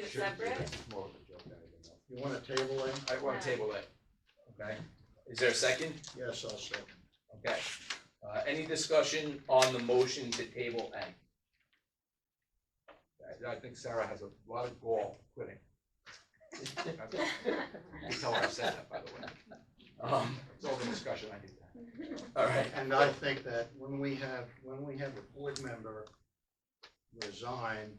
Sure. separate? It's more of a joke, I don't know. You wanna table it? I want to Yeah. table that. Okay, is there a second? Yes, I'll second. Okay, uh, any discussion on the motion to table N? I- I think Sarah has a lot of gall quitting. You can tell her I said that, by the way. Um, it's all the discussion, I did that. All right, And I think that when we have, when we have a board member resign,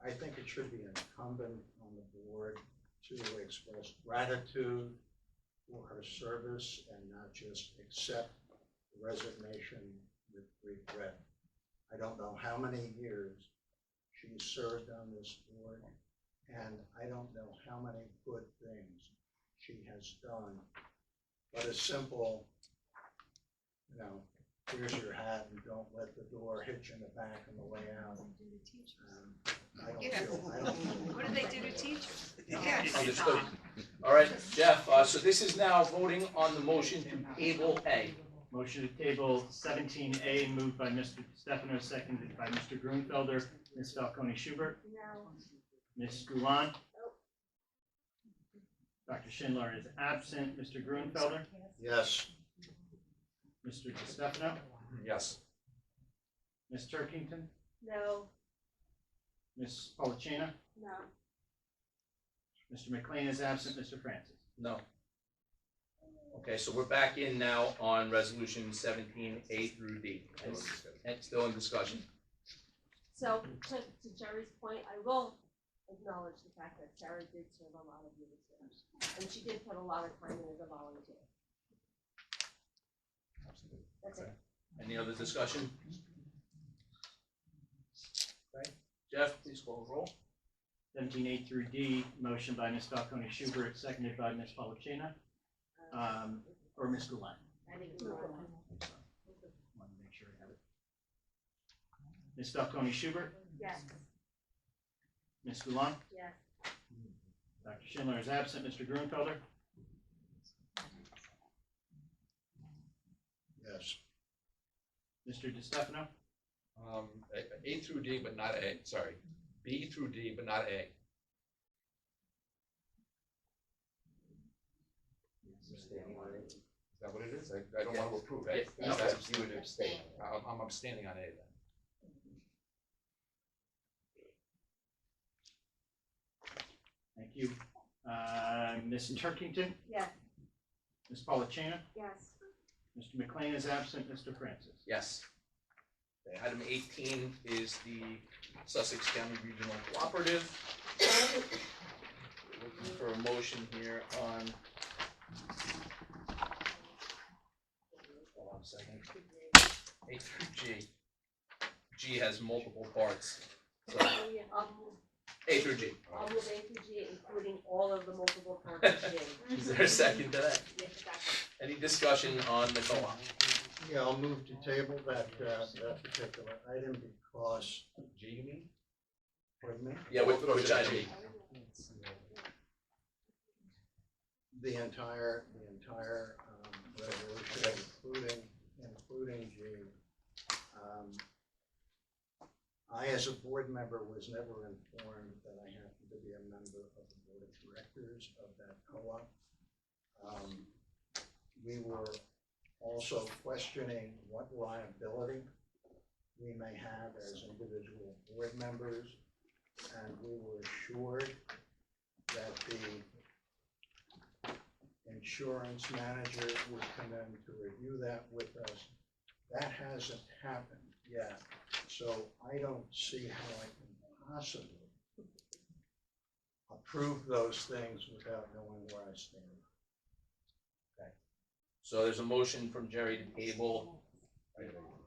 I think it should be incumbent on the board to express gratitude for her service and not just accept resignation with regret. I don't know how many years she served on this board, and I don't know how many good things she has done but a simple, you know, here's your hat and don't let the door hit you in the back on the way out. um, I don't Yeah. feel, I don't. feel What do they do to comfortable. teachers? understood. All right, Jeff, uh, so this is now voting on the motion to table A. Motion to table seventeen A moved by Mr. Stefano, seconded by Mr. Grunfelder, Ms. Falcone Schubert, No. Ms. Gulan. Dr. Schindler is absent. Mr. Grunfelder, Yes, Mr. Di Stefano, Yes. Ms. Turkington, No, Ms. Polachina, no. Mr. McLean is absent. Mr. Francis. No. Okay, so we're back in now on resolution seventeen A through D. And s- And still in discussion. So to, to Jerry's point, I will acknowledge the fact that Sarah did serve a lot of years there. And she did put a lot of time in as a volunteer. That's it. Any other discussion? Okay, Jeff, please call the roll. Seventeen A through D, motion by Ms. Falcone Schubert, seconded by Ms. Polachina, um, or Ms. Gulan. I think we were- Wanted to make sure I have it. Ms. Falcone Schubert, Yes, Ms. Gulan. yes. Dr. Schindler is absent. Mr. Grunfelder, yes. Mr. Di Stefano, Um, A, A through D, but not A, sorry. B through D, but not A. Is that what it is? I, I don't want to approve A. Yes. Okay, you would abstain. I'm, I'm abstaining on A then. thank you. Uh, Ms. Turkington, Yes, Ms. Polachina, yes. Mr. McLean is absent. Mr. Francis. Yes. Okay, Item eighteen is the Sussex County Regional Cooperative. Looking for a motion here on. Hold on a second. A through G. G has multiple parts, so Oh, yeah, I'll move, A through G. I'll move A through G, including all of the multiple parts of G. Is there a second to that? Yes, exactly. Any discussion on the co-op? Yeah, I'll move to table that, uh, that particular item because, G you mean? pardon me, Yeah, which, which IG? the entire, the entire, um, resolution, including, including G. Um, I, as a board member, was never informed that I happened to be a member of the board of directors of that co-op. Um, We were also questioning what liability we may have as individual board members. And we were assured that the insurance manager would come in to review that with us. That hasn't happened yet, so I don't see how I can possibly approve those things without knowing where I stand. So there's a motion from Jerry to table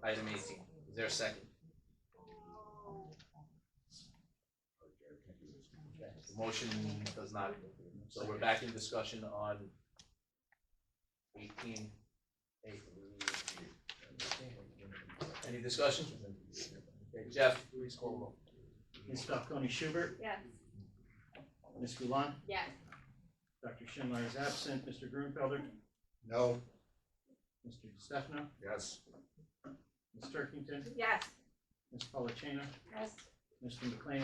item eighteen. Is there a second? Okay, The motion does not, so we're back in discussion on eighteen A. Any discussion? Okay, Jeff, please call the roll. Ms. Falcone Schubert, Yes, Ms. Gulan, yes. Dr. Schindler is absent. Mr. Grunfelder, No, Mr. Di Stefano, Yes. Ms. Turkington, Yes. Ms. Polachina, Yes. Mr. McLean,